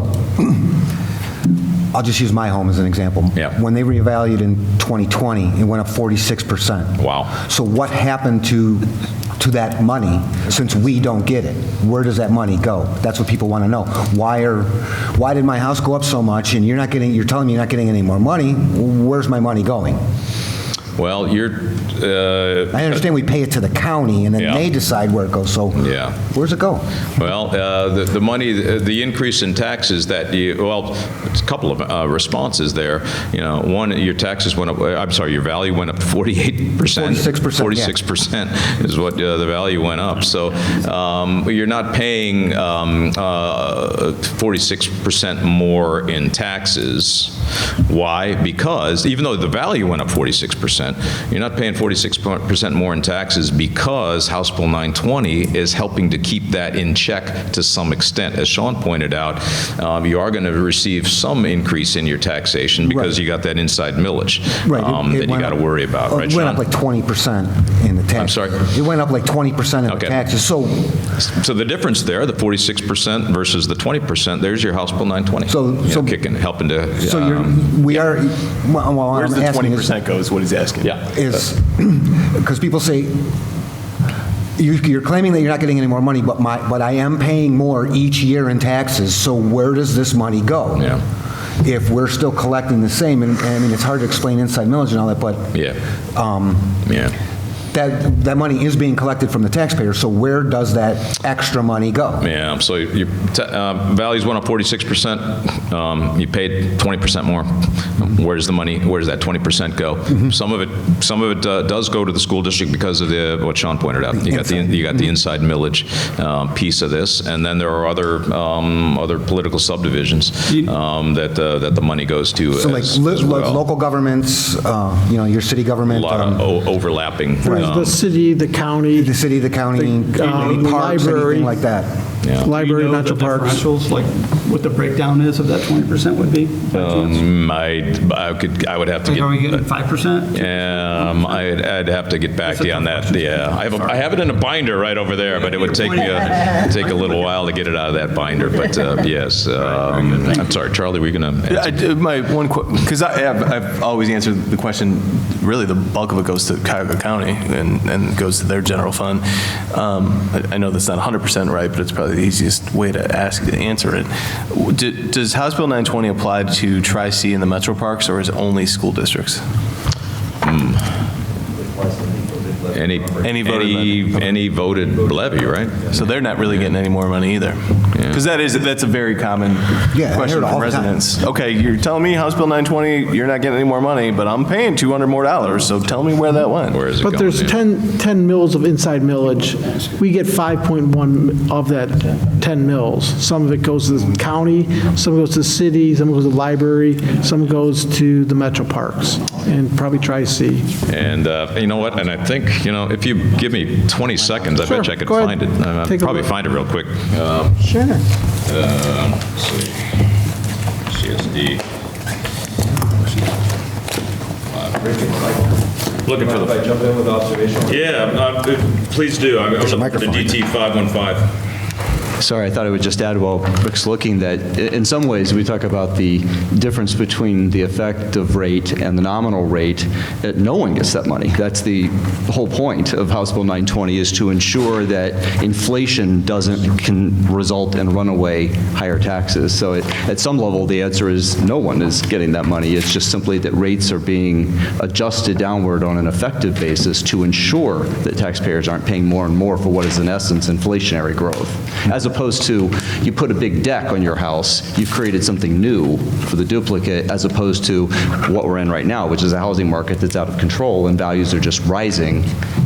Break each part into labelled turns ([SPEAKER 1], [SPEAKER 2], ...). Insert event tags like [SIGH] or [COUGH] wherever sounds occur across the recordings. [SPEAKER 1] [CLEARS THROAT] I'll just use my home as an example.
[SPEAKER 2] Yeah.
[SPEAKER 1] When they revalued in 2020, it went up 46%.
[SPEAKER 2] Wow.
[SPEAKER 1] So what happened to, to that money since we don't get it? Where does that money go? That's what people want to know. Why are, why did my house go up so much and you're not getting, you're telling me you're not getting any more money? Where's my money going?
[SPEAKER 2] Well, you're, uh,
[SPEAKER 1] I understand we pay it to the county and then
[SPEAKER 2] Yeah.
[SPEAKER 1] they decide where it goes, so.
[SPEAKER 2] Yeah.
[SPEAKER 1] Where's it go?
[SPEAKER 2] well, uh, the the money, the increase in taxes that you, well, it's a couple of uh, responses there. You know, one, your taxes went up, uh, I'm sorry, your value went up 48%.
[SPEAKER 1] 46%, yeah.
[SPEAKER 2] 46% is what uh, the value went up. So um, you're not paying um, uh, 46% more in taxes. Why? Because even though the value went up 46%, you're not paying 46% more in taxes because House Bill 920 is helping to keep that in check to some extent. As Sean pointed out, um, you are going to receive some increase in your taxation because you got that inside millage
[SPEAKER 1] Right. it-
[SPEAKER 2] um,
[SPEAKER 1] it
[SPEAKER 2] that you
[SPEAKER 1] went
[SPEAKER 2] got to
[SPEAKER 1] up-
[SPEAKER 2] worry about,
[SPEAKER 1] uh,
[SPEAKER 2] right,
[SPEAKER 1] It went up
[SPEAKER 2] Sean?
[SPEAKER 1] like 20% in the tax.
[SPEAKER 2] sorry?
[SPEAKER 1] It went up like 20% in the
[SPEAKER 2] Okay.
[SPEAKER 1] taxes. So,
[SPEAKER 2] So the difference there, the 46% versus the 20%, there's your House Bill 920.
[SPEAKER 1] So-
[SPEAKER 2] You know,
[SPEAKER 1] so-
[SPEAKER 2] Kicking, helping to.
[SPEAKER 1] so you're,
[SPEAKER 2] um,
[SPEAKER 1] we are, well, well,
[SPEAKER 3] Where's
[SPEAKER 1] I'm
[SPEAKER 3] the
[SPEAKER 1] asking
[SPEAKER 3] twenty
[SPEAKER 1] is,
[SPEAKER 3] percent goes, what he's asking.
[SPEAKER 2] Yeah.
[SPEAKER 1] is, [CLEARS THROAT] because people say, you- you're claiming that you're not getting any more money, but my, but I am paying more each year in taxes, so where does this money go?
[SPEAKER 2] Yeah.
[SPEAKER 1] If we're still collecting the same, and, and I mean, it's hard to explain inside millage and all that, but.
[SPEAKER 2] Yeah.
[SPEAKER 1] Um,
[SPEAKER 2] Yeah.
[SPEAKER 1] that, that money is being collected from the taxpayer, so where does that extra money go?
[SPEAKER 2] Yeah, so your ta- uh, values went up 46%, um, you paid 20% more. Where's the money, where's that 20% go?
[SPEAKER 1] Mm-hmm.
[SPEAKER 2] Some of it, some of it uh, does go to the school district because of the, what Sean pointed out. You got the, you got the
[SPEAKER 1] Mm-hmm.
[SPEAKER 2] inside millage um, piece of this, and then there are other, um, other political subdivisions um, that, uh, that the money goes to
[SPEAKER 1] So like
[SPEAKER 2] as
[SPEAKER 1] lo-
[SPEAKER 2] as
[SPEAKER 1] lo-
[SPEAKER 2] well.
[SPEAKER 1] local governments, uh, you know, your city
[SPEAKER 2] A
[SPEAKER 1] government,
[SPEAKER 2] lot of
[SPEAKER 1] um,
[SPEAKER 2] o- overlapping.
[SPEAKER 4] There's
[SPEAKER 2] um,
[SPEAKER 4] the city, the county,
[SPEAKER 1] the city, the county,
[SPEAKER 4] The, uh,
[SPEAKER 1] any parks,
[SPEAKER 4] library.
[SPEAKER 1] anything like that.
[SPEAKER 2] yeah.
[SPEAKER 5] Do you
[SPEAKER 4] library,
[SPEAKER 5] know
[SPEAKER 4] metro
[SPEAKER 5] the
[SPEAKER 4] parks.
[SPEAKER 5] differentials, like what the breakdown is of that 20% would be? by chance?
[SPEAKER 2] Um, I, I could, I would have to
[SPEAKER 5] Like,
[SPEAKER 2] get.
[SPEAKER 5] are we getting 5%?
[SPEAKER 2] Um, I'd, I'd have to get back to you on that, yeah. I have, a- I have it in a binder right over there, but it would take me, a take a little while to get it out of that binder, but uh, yes. um, I'm sorry, Charlie, were you going
[SPEAKER 3] Yeah, I
[SPEAKER 2] to?
[SPEAKER 3] do- My one, because I have, I've always answered the question, really, the bulk of it goes to Cuyahoga County and, and goes to their general fund. Um, I I know that's not 100% right, but it's probably the easiest way to ask, to answer it. W- do- Does House Bill 920 apply to Tri-C and the metro parks, or is it only school districts?
[SPEAKER 2] Any,
[SPEAKER 3] Any voted
[SPEAKER 2] any, any voted levy, right?
[SPEAKER 3] So they're not really getting any more money either. Because that is, that's a very common
[SPEAKER 1] Yeah, I hear
[SPEAKER 3] question
[SPEAKER 1] it all
[SPEAKER 3] from
[SPEAKER 1] the time.
[SPEAKER 3] residents. Okay, you're telling me House Bill 920, you're not getting any more money, but I'm paying 200 more dollars, so tell me where that went.
[SPEAKER 2] Where is it going?
[SPEAKER 4] But there's
[SPEAKER 2] yeah?
[SPEAKER 4] 10, 10 mills of inside millage. We get 5.1 of that 10 mills. Some of it goes to the county, some goes to the city, some goes to the library, some goes to the metro parks, and probably Tri-C.
[SPEAKER 2] And uh, you know what? And I think, you know, if you give me 20 seconds, I bet
[SPEAKER 4] Sure,
[SPEAKER 2] you I could
[SPEAKER 4] go ahead.
[SPEAKER 2] find it. I- I'll
[SPEAKER 4] Take a
[SPEAKER 2] probably
[SPEAKER 4] look.
[SPEAKER 2] find it real quick. Uh, Um,
[SPEAKER 4] Sure.
[SPEAKER 2] let's see. CSD. Looking for the.
[SPEAKER 6] If I jump in with observation?
[SPEAKER 2] Yeah, uh, please do. I'm I'm looking for the DT 515.
[SPEAKER 7] Sorry, I thought I would just add while Rick's looking that, i- in some ways, we talk about the difference between the effective rate and the nominal rate, that no one gets that money. That's the whole point of House Bill 920, is to ensure that inflation doesn't, can result in runaway higher taxes. So it- at some level, the answer is, no one is getting that money. It's just simply that rates are being adjusted downward on an effective basis to ensure that taxpayers aren't paying more and more for what is in essence inflationary growth, as opposed to you put a big deck on your house, you've created something new for the duplicate, as opposed to what we're in right now, which is a housing market that's out of control and values are just rising.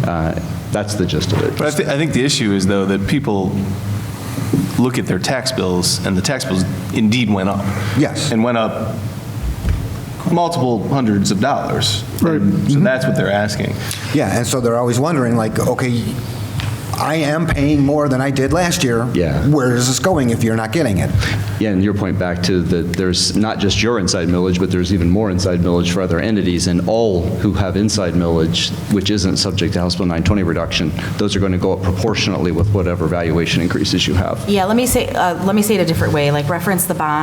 [SPEAKER 7] Uh, That's the gist of it.
[SPEAKER 3] But I, thi- I think the issue is, though, that people look at their tax bills, and the tax bills indeed went up.
[SPEAKER 1] Yes.
[SPEAKER 3] And went up multiple hundreds of dollars. Right. So
[SPEAKER 1] Mm-hmm.
[SPEAKER 3] that's what they're asking.
[SPEAKER 1] Yeah, and so they're always wondering, like, okay, I am paying more than I did last year.
[SPEAKER 7] Yeah.
[SPEAKER 1] Where is this going if you're not getting it?
[SPEAKER 7] Yeah, and your point back to that there's not just your inside millage, but there's even more inside millage for other entities, and all who have inside millage, which isn't subject to House Bill 920 reduction, those are going to go up proportionately with whatever valuation increases you have.
[SPEAKER 8] Yeah, let me say, uh, let me say it a different way, like reference the bond